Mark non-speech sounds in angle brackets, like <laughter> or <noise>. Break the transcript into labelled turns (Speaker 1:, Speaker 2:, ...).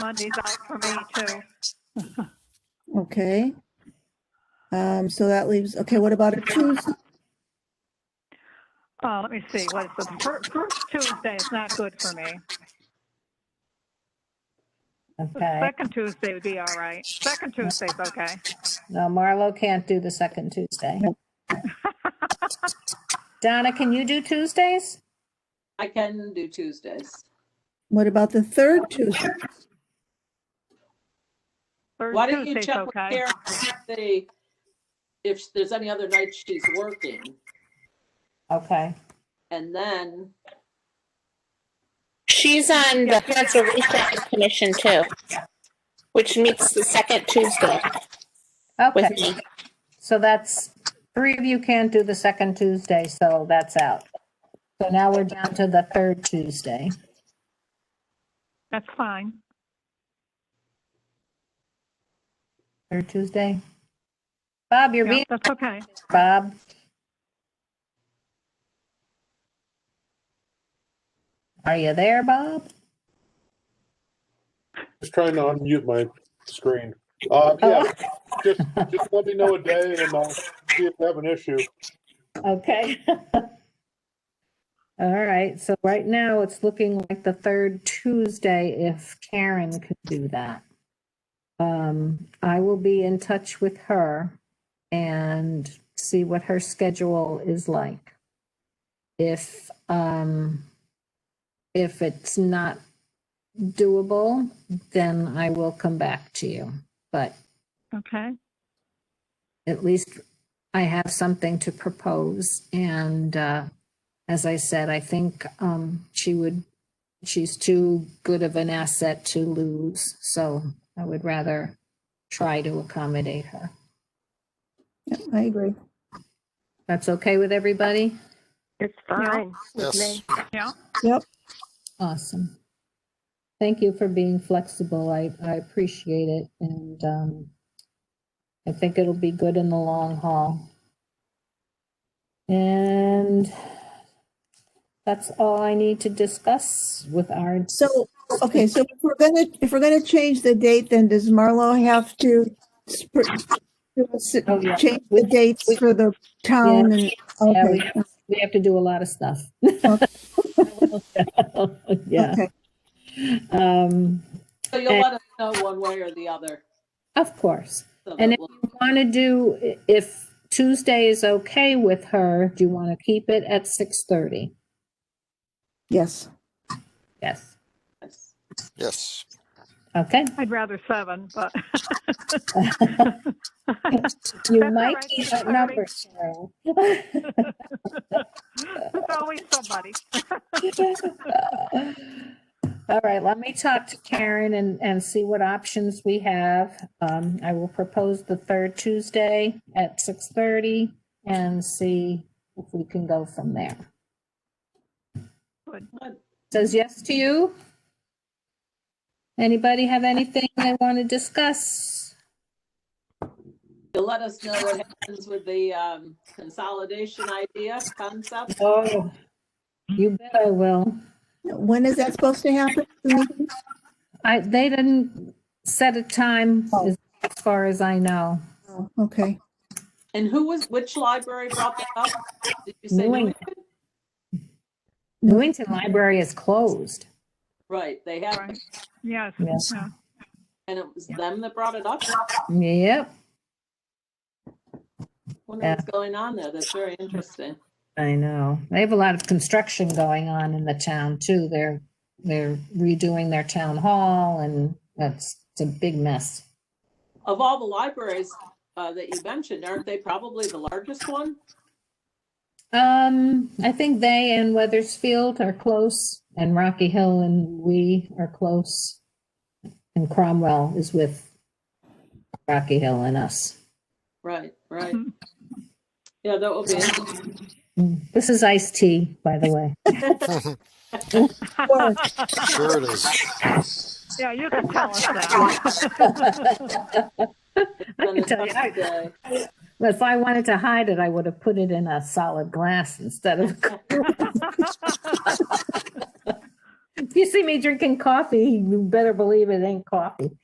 Speaker 1: Monday's out for me too.
Speaker 2: Okay. Um, so that leaves, okay, what about a Tuesday?
Speaker 1: Uh, let me see, what is the fir- first Tuesday is not good for me. The
Speaker 3: Okay,
Speaker 1: Second Tuesday would be all right. Second Tuesday's okay.
Speaker 3: no, Marlo can't do the second Tuesday. Donna, can you do Tuesdays?
Speaker 4: I can do Tuesdays.
Speaker 2: What about the third Tuesday?
Speaker 1: Third
Speaker 4: Why don't you
Speaker 1: Tuesday's
Speaker 4: check with
Speaker 1: okay.
Speaker 4: Karen and see if there's any other night she's working,
Speaker 3: Okay,
Speaker 4: and then,
Speaker 5: She's on the Conservation Commission too, which meets the second Tuesday with
Speaker 3: okay,
Speaker 5: me.
Speaker 3: so that's, three of you can't do the second Tuesday, so that's out. So now we're down to the third Tuesday.
Speaker 1: That's fine.
Speaker 3: Third Tuesday? Bob, you're
Speaker 1: Yeah,
Speaker 3: being,
Speaker 1: that's okay.
Speaker 3: Bob? Are you there, Bob?
Speaker 6: Just trying to unmute my screen. Uh, yeah, just, just let me know a day and I'll see if I have an issue.
Speaker 3: Okay. <laughs> All right, so right now it's looking like the third Tuesday if Karen could do that. Um, I will be in touch with her and see what her schedule is like. If, um, if it's not doable, then I will come back to you. But
Speaker 1: Okay.
Speaker 3: at least I have something to propose. And uh, as I said, I think um, she would, she's too good of an asset to lose. So I would rather try to accommodate her.
Speaker 2: Yeah, I agree.
Speaker 3: That's okay with everybody?
Speaker 7: It's fine with me.
Speaker 1: Yeah.
Speaker 2: Yep.
Speaker 3: Awesome. Thank you for being flexible. I, I appreciate it. And um, I think it'll be good in the long haul. And that's all I need to discuss with our,
Speaker 2: So, okay, so if we're gonna, if we're gonna change the date, then does Marlo have to sp- do a s-
Speaker 3: Oh, yeah.
Speaker 2: change the dates for the town and,
Speaker 3: Yeah, we-
Speaker 2: okay,
Speaker 3: we have to do a lot of stuff. <laughs> Yeah.
Speaker 2: okay.
Speaker 3: Um,
Speaker 4: so you'll let us know one way or the other.
Speaker 3: Of course.
Speaker 4: so that
Speaker 3: And if
Speaker 4: we'll-
Speaker 3: you want to do, i- if Tuesday is okay with her, do you want to keep it at 6:30?
Speaker 2: Yes,
Speaker 3: Yes.
Speaker 8: Yes,
Speaker 3: Okay.
Speaker 1: I'd rather seven, but <laughs>
Speaker 3: You
Speaker 1: That's all
Speaker 3: might
Speaker 1: right,
Speaker 3: be
Speaker 1: Miss Harvey.
Speaker 3: outnumbered, Cheryl.
Speaker 1: there's always somebody.
Speaker 3: <laughs> All right, let me talk to Karen and, and see what options we have. Um, I will propose the third Tuesday at six thirty and see if we can go from there.
Speaker 4: Good.
Speaker 3: Says yes to you? Anybody have anything they want to discuss?
Speaker 4: You'll let us know what happens with the um, consolidation idea, concept.
Speaker 3: Oh. You bet I will.
Speaker 2: when is that supposed to happen? The meeting?
Speaker 3: I, they didn't set a time as as far as I know.
Speaker 2: Oh, Okay,
Speaker 4: And who was, which library brought that up? Did you say?
Speaker 3: New
Speaker 4: New-
Speaker 3: England. Newington Library is closed.
Speaker 4: Right, they have,
Speaker 1: Right. Yes.
Speaker 3: Yes.
Speaker 1: yeah.
Speaker 4: and it was them that brought it up?
Speaker 3: Yep.
Speaker 4: Wonder what's going on there. That's very interesting.
Speaker 3: I know. They have a lot of construction going on in the town too. They're, they're redoing their town hall and that's, it's a big mess.
Speaker 4: Of all the libraries uh, that you mentioned, aren't they probably the largest one?
Speaker 3: Um, I think they and Weathersfield are close and Rocky Hill and we are close. And Cromwell is with Rocky Hill and us.
Speaker 4: Right, right. Yeah, that will be, interesting.
Speaker 3: This is iced tea, by the way.
Speaker 8: sure it is.
Speaker 1: Yeah, you
Speaker 3: <laughs>
Speaker 1: can tell us that.
Speaker 3: I can tell you, I-
Speaker 4: Today.
Speaker 3: If I wanted to hide it, I would have put it in a <laughs> solid glass instead of. <laughs> you see me drinking coffee, you better believe it ain't coffee.